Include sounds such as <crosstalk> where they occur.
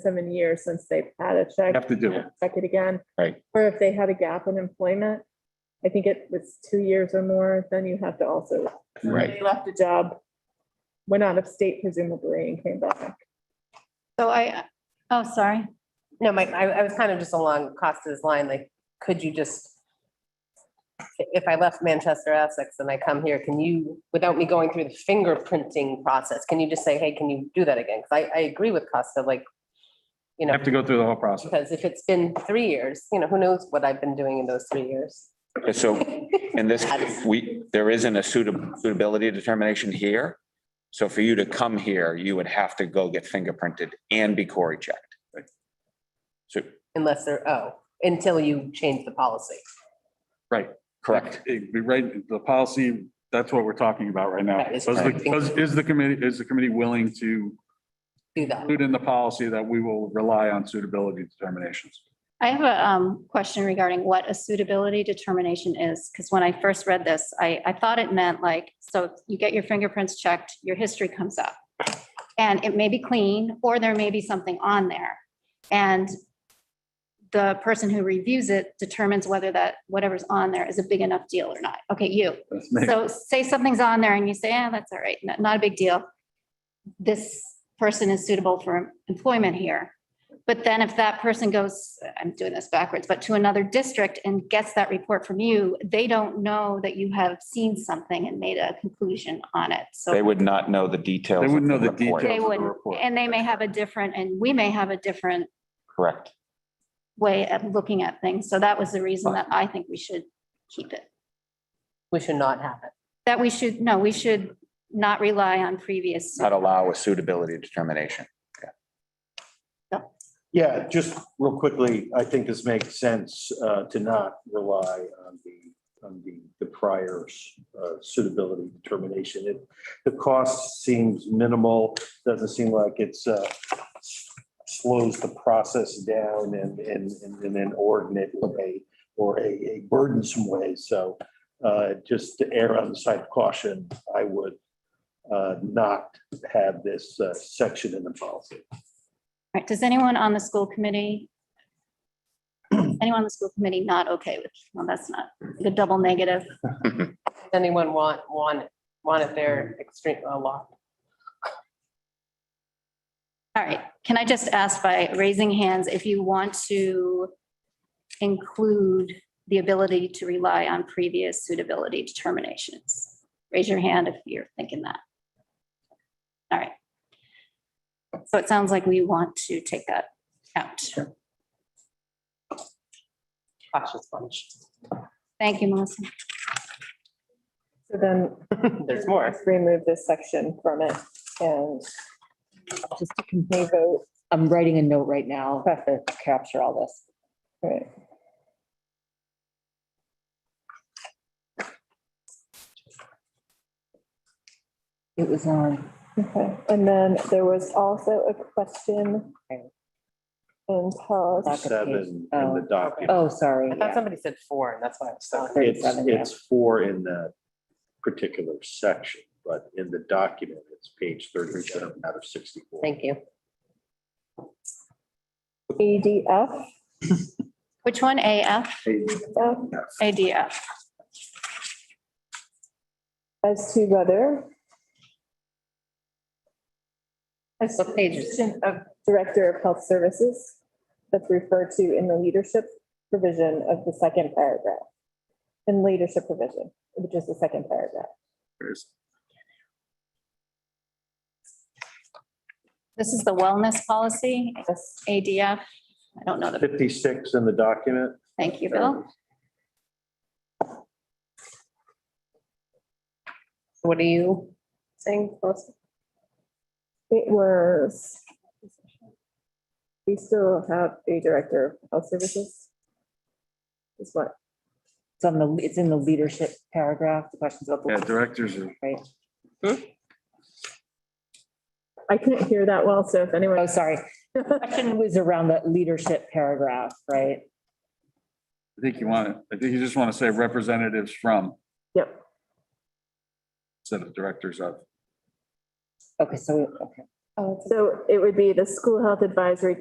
seven years since they've had a check. Have to do it. Check it again. Right. Or if they had a gap in employment, I think it was two years or more, then you have to also. Right. They Left a job, went out of state presumably and came back. So I, oh, sorry. No, Mike, I, I was kind of just along Costa's line, like, could you just, if I left Manchester Essex and I come here, can you, without me going through the fingerprinting process, can you just say, hey, can you do that again? Because I, I agree with Costa, like, you know, Have to go through the whole process. because if it's been three years, you know, who knows what I've been doing in those three years? <laughs> Okay, So in this, we, there isn't a suitab- suitability determination here. So for you to come here, you would have to go get fingerprinted and be Cory checked. So, Unless they're, oh, until you change the policy. correct. It'd be Right, the policy, that's what we're talking about right now. That is Does the- correct. does- Is the committee, is the committee willing to Do that. include in the policy that we will rely on suitability determinations? I have a um, question regarding what a suitability determination is, because when I first read this, I, I thought it meant like, so you get your fingerprints checked, your history comes up. And it may be clean, or there may be something on there. And the person who reviews it determines whether that, whatever's on there is a big enough deal or not. Okay, you, Let's make- So say something's on there and you say, ah, that's all right, not, not a big deal. This person is suitable for employment here. But then if that person goes, I'm doing this backwards, but to another district and gets that report from you, they don't know that you have seen something and made a conclusion on it. They So, would not know the details. They of wouldn't know the report. details of the wouldn't. report. and they may have a different, and we may have a different Correct. way of looking at things. So that was the reason that I think we should keep it. We should not have it. That we should, no, we should not rely on previous. Not allow a suitability determination. Yeah, just real quickly, I think this makes sense uh, to not rely on the, on the, the prior uh, suitability determination. It- The cost seems minimal, doesn't seem like it's, uh, slows the process down in, in, in an inordinate way or a, a burdensome way. So uh, just to err on the side of caution, I would uh, not have this uh, section in the policy. All right, does anyone on the school committee? Anyone on the school committee not okay with, well, that's not the double negative. Does Anyone want, want, it? want it there extreme, a lot? All right, can I just ask by raising hands if you want to include the ability to rely on previous suitability determinations? Raise your hand if you're thinking that. All right. So it sounds like we want to take that out. Cautious bunch. Thank you, Melissa. So <laughs> then. There's more. Remove this section from it and just to convey vote. I'm writing a note right now to capture all this. Right. It was on, Okay, and then there was also a question in policy. seven in the document. oh, sorry. I thought somebody said four, and that's why I was telling. It's, 37, yeah. it's four in the particular section, but in the document, it's page thirty-seven out of sixty-four. Thank you. ADF, Which one, AF, uh, ADF? as to whether as to What page is it? position of Director of Health Services that's referred to in the leadership provision of the second paragraph. In leadership provision, which is the second paragraph. This is the wellness policy, Yes. ADF. I don't know the, Fifty-six in the document. thank you, Bill. What are you saying, Melissa? It was. We still have a Director of Health Services. Is what, It's on the, it's in the leadership paragraph, the questions about. the- Yeah, directors are, Right. I couldn't hear that well, so if anyone. Oh, sorry. <laughs> Question was around the leadership paragraph, right? I think you want, to- I think you just want to say representatives from Yep, instead of directors of. Okay, so, okay. Oh, so it would be the School Health Advisory